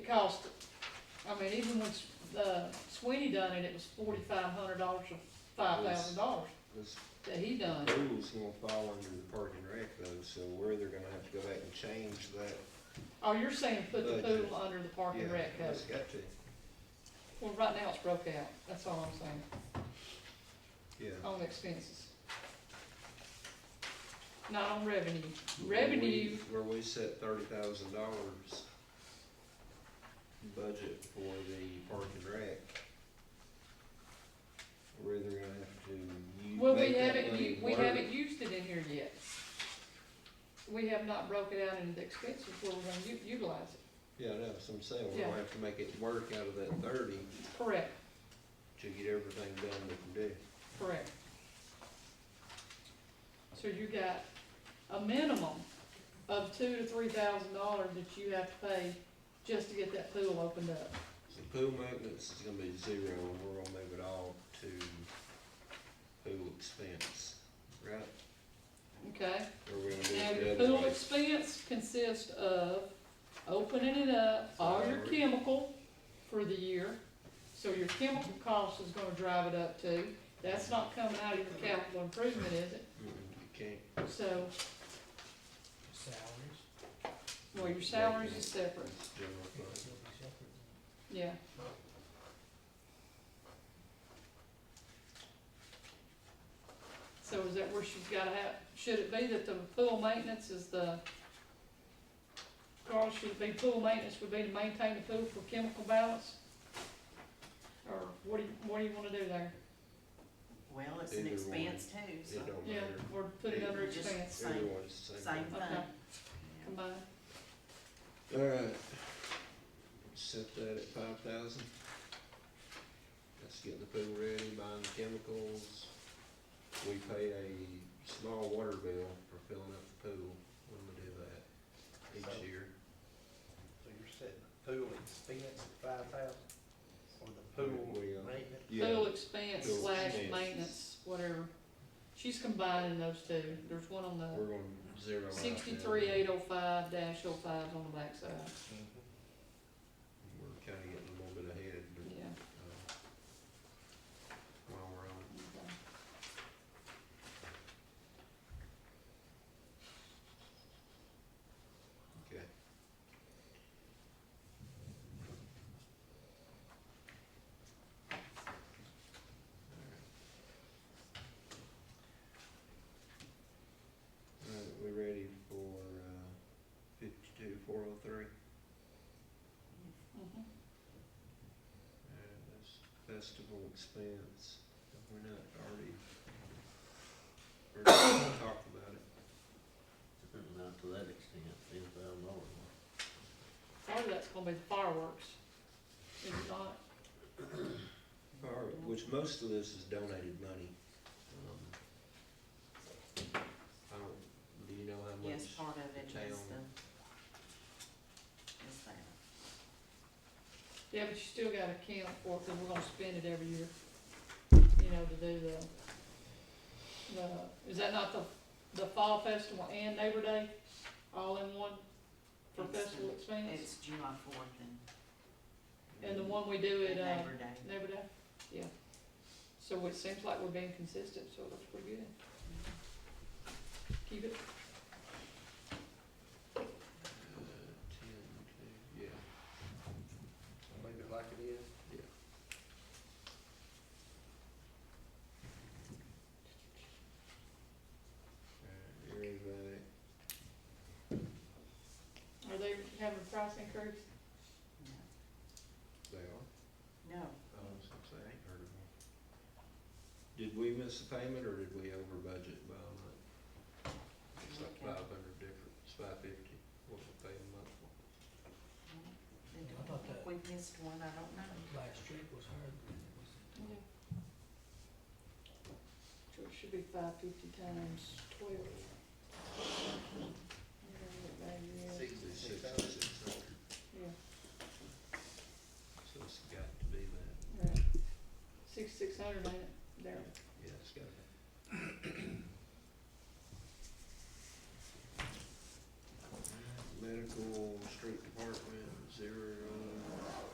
cost, I mean, even when, uh, Sweeney done it, it was forty-five hundred dollars or five thousand dollars This that he done. pool's gonna fall under the park and rec though, so we're either gonna have to go back and change that. Oh, you're saying put the Budget. pool under the park and Yeah, rec code? That's got to, Well, right now it's broke out, that's all I'm saying, yeah. on the expenses. Not on revenue. Revenue, Where we- where we set thirty thousand dollars budget for the park and rec. We're either gonna have to use. well, we make that haven't, money u- we work. haven't used it in here yet. We have not broken out into the expenses where we're gonna u- utilize it, Yeah, no, so I'm saying, we're Yeah. gonna have to make it work out of that thirty correct. to get everything done we can do. Correct. So you got a minimum of two to three thousand dollars that you have to pay just to get that pool opened up. So pool maintenance is gonna be zero, and we're gonna move it all to pool expense, right? Okay, Or we're gonna do now it your the other pool way? expense consists of opening it up, all your chemical for the year. So your chemical cost is gonna drive it up too. That's not coming out of your capital improvement, is it? Mm, You can't, So, Salaries. well, your salaries is separate, it's general fund. It'll be separate. yeah. So is that where she's gotta have, should it be that the pool maintenance is the, Carl, should it be pool maintenance would be to maintain the pool for chemical balance? Or what do you, what do you wanna do there? Well, it's an Either expense too, so It don't Yeah, matter. or put it under Just- expense, Same. Everyone's the same same. thing. Okay. Yeah. combined, Alright. Set that at five thousand. Let's get the pool ready, buying the chemicals. We pay a small water bill for filling up the pool when we do that So- each year. So you're setting the pool expense at five thousand, or the pool We, uh, maintenance? pool Yeah, expense Pool slash expense. maintenance, whatever. She's combining those two, there's one on the. we're gonna zero out. that. Sixty-three eight oh five dash oh five on the backside, We're kinda getting a little bit ahead, but, yeah. uh, while we're on. it. okay. Okay. Alright, we ready for, uh, fifty-two, four oh three? Mhm. Alright, that's festival expense, Have we not already, we're gonna talk about it. Not to that extent, ten thousand dollars. Part of that's gonna be the fireworks, is it not? Or- which most of this is donated money. Um, I don't, do you know how much? Uh, Yes, part of it is town- the, is that. Yeah, but you still gotta account for it, cause we're gonna spend it every year, you know, to do the, the, is that not the, the Fall Festival and Neighbor Day, all in one for It's the- festival expense? It's July fourth and And the one we do and at, uh, Labor Day. Neighbor Day, yeah. So it seems like we're being consistent, so it looks pretty good. Keep it, Uh, ten, two, yeah. Leave it like it is? Alright, you ready for that? are they having a price increase? They are, No, no, I was gonna say, I ain't heard of them. Did we miss a payment or did we over budget by a month? It's like Okay. five hundred difference, five fifty, what we pay a month for. they I thought don't, that- we missed one, I don't know. Last year was hard, but it was. So it should be five fifty times twelve. Sixty-six Sixty-six hundred. thousand. Yeah, So it's got to be that, right. Six, six hundred, ain't it, there, yeah, it's gotta be.